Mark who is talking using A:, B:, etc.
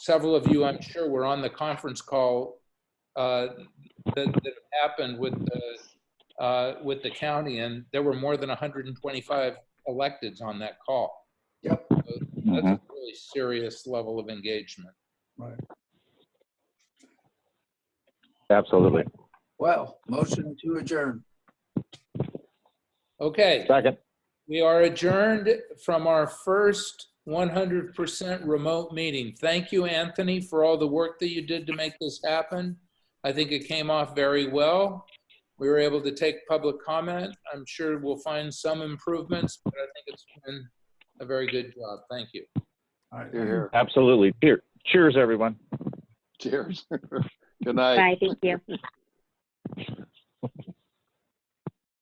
A: several of you, I'm sure, were on the conference call uh, that that happened with the, uh, with the county, and there were more than 125 electeds on that call.
B: Yep.
A: So That's a really serious level of engagement.
C: Absolutely.
B: Well, motion to adjourn.
A: Okay.
C: Second.
A: We are adjourned from our first 100% remote meeting. Thank you, Anthony, for all the work that you did to make this happen. I think it came off very well. We were able to take public comment. I'm sure we'll find some improvements, but I think it's been a very good job. Thank you.
B: All right.
D: You're here.
C: Absolutely. Cheer- Cheers, everyone.
D: Cheers. Good night.
E: Bye, thank you.